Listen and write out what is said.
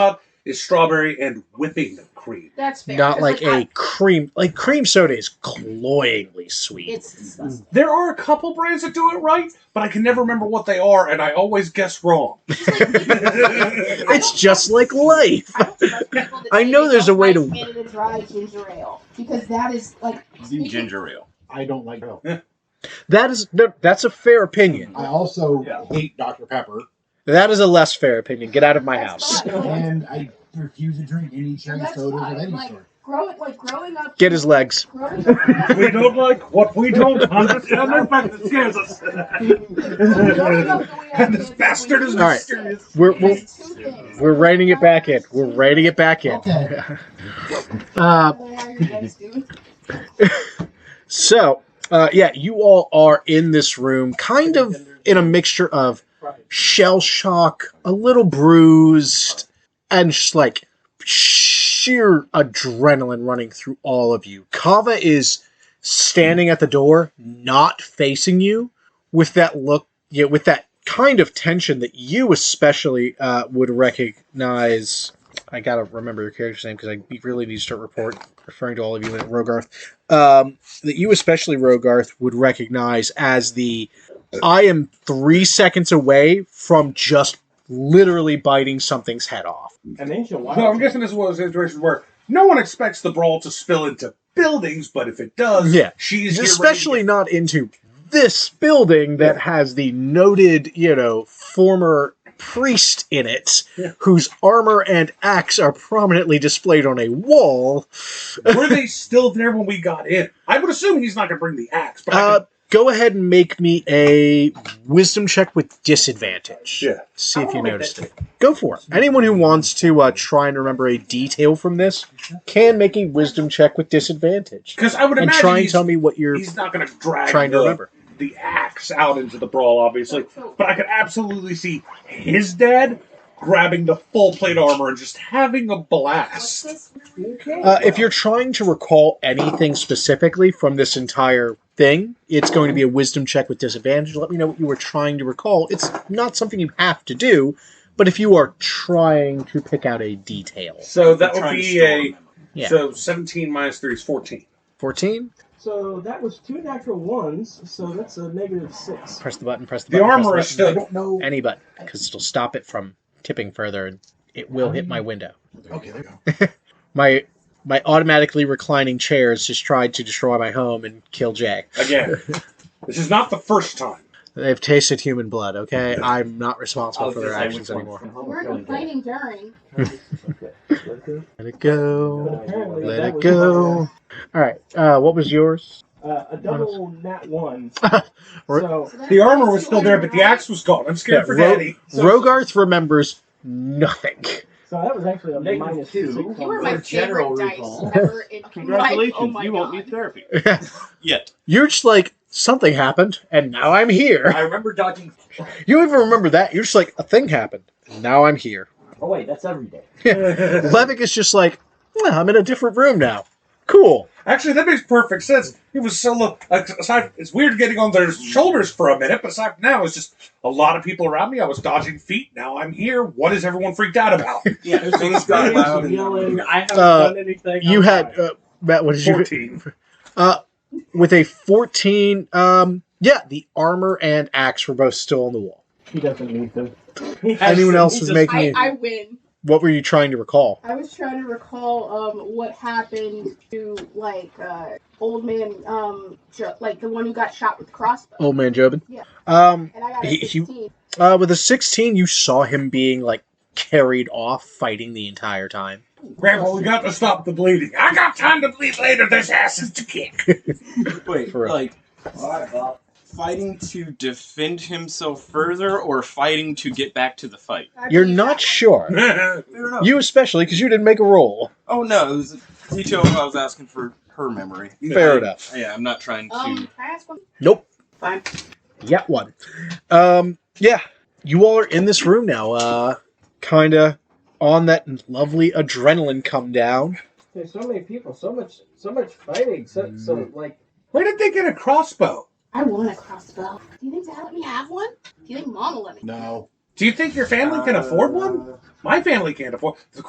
pop is strawberry and whipping cream. That's fair. Not 'cause, like, a I- cream. Like cream soda is cloyingly sweet. It's disgusting. There are a couple brands that do it right, but I can never remember what they are, and I always guess wrong. I It's don't just like life. I, don't trust people that I say know they there's don't a way like to- Canada Dry ginger ale because that is like The ginger ale. I don't like milk. That is no, that's a fair opinion. I also Yeah. hate Dr. Pepper, That is a less fair opinion. Get out of my That's house. fine. and I refuse to drink any cherry That's sodas fine, of any like- sort. growing like growing up. Get his legs. Growing up, we don't like what we don't understand. In fact, it scares us. growing up the way I And this did, bastard is we- All right. mysterious. We're There's we're, two things. we're writing it back in. We're writing it back in. Okay. Uh, How you guys doing? so uh, yeah, you all are in this room, kind of in a mixture of shell shock, a little bruised, and just like sheer adrenaline running through all of you. Kava is standing at the door, not facing you, with that look, yeah, with that kind of tension that you especially uh, would recognize. I gotta remember your character's name because I really need to start report referring to all of you in Rogarth. Um, that you especially Rogarth would recognize as the I am three seconds away from just literally biting something's head off. An ancient wild. So I'm guessing this is one of those situations where no one expects the brawl to spill into buildings, but if it does, Yeah. she's here ready to Especially not into this building that has the noted, you know, former priest in it, Yeah. whose armor and axe are prominently displayed on a wall. get- Were they still there when we got in? I would assume he's not going to bring the axe, but I Uh, could- go ahead and make me a wisdom check with disadvantage. Yeah. See I if you wanna make noticed that it. Go for it. Anyone who wants to uh, try and remember a detail from this can make a wisdom check with disadvantage. because I would And imagine try and he's, tell me what you're he's not going to drag trying to the- remember. the axe out into the brawl, obviously. But I could absolutely see his dad grabbing the full plate armor and just having a What's blast. this? Uh, if you're trying to recall anything specifically from this entire thing, it's going to be a wisdom check with disadvantage. Let me know what you were trying to recall. It's not something you have to do, but if you are trying to pick out a detail. So that would Trying to be store a them. Yeah. so 17 minus 3 is 14. 14? So that was two natural ones, so that's a negative six. Press the button, press the The button. press armor is button. I still don't know. Any button, because it'll stop it from tipping further and it will hit my window. Okay, there you go. My my automatically reclining chair has just tried to destroy my home and kill Jack. again. this is not the first time. They've tasted human blood, okay? I'm not responsible I'll for just their say actions which one. anymore. We're complaining during. Let it go. Apparently, Let that it was- go. All right. Uh, what was yours? Uh, a double nat one. We're- so, So that's- The armor was that's still two there, but the armor, axe was gone. I'm scared Yeah, for Ro- daddy. So- Rogarth remembers nothing. so that was actually a Negative minus two. six. You were on my that. General favorite dice recall. ever. in my- oh Congratulations, my you won't God. need therapy. Yet. You're just like, something happened, and now I'm here. I remember dodging. You don't even remember that. You're just like, a thing happened, and now I'm here. Oh wait, that's every day. Levick is just like, "Well, I'm in a different room now. Cool. Actually, that makes perfect sense. He was so low. Aside, it's weird getting on their shoulders for a minute, but aside from now, it's just a lot of people around me. I was dodging feet. Now I'm here. What is everyone freaked out about? Yeah, Things got loud and- Yelling. I haven't Uh, done anything. You had, uh, Matt, what did you? 14. With a 14, um, yeah, the armor and axe were both still on the wall. He doesn't need them. Anyone else was making I, it. I win. What were you trying to recall? I was trying to recall um what happened to like uh old man um Jo- like the one who got shot with the crossbow. Old man Jobin? Yeah. Um, And I got a Oh, He- he- 16. Uh, with a 16, you saw him being like carried off fighting the entire time. Grandpa, we got to stop the bleeding. I got time to bleed later. This ass is to kick. Wait, For real. like fighting to defend himself further or fighting to get back to the fight? I You're believe not that. sure. Fair enough. You especially, because you didn't make a roll. oh no, it was a detail I was asking for her memory. Fair enough. Yeah, I'm not trying to. Um, can I ask one? Nope. Fine. Yet one. Um, yeah. You all are in this room now, uh, kind of on that lovely adrenaline come down. There's so many people, so much, so much fighting. So, so like, Where did they get a crossbow? I want a crossbow. Do you think Dad let me have one? Do you think Mom will let me? No. Do you think your family can afford one? My family can't afford. The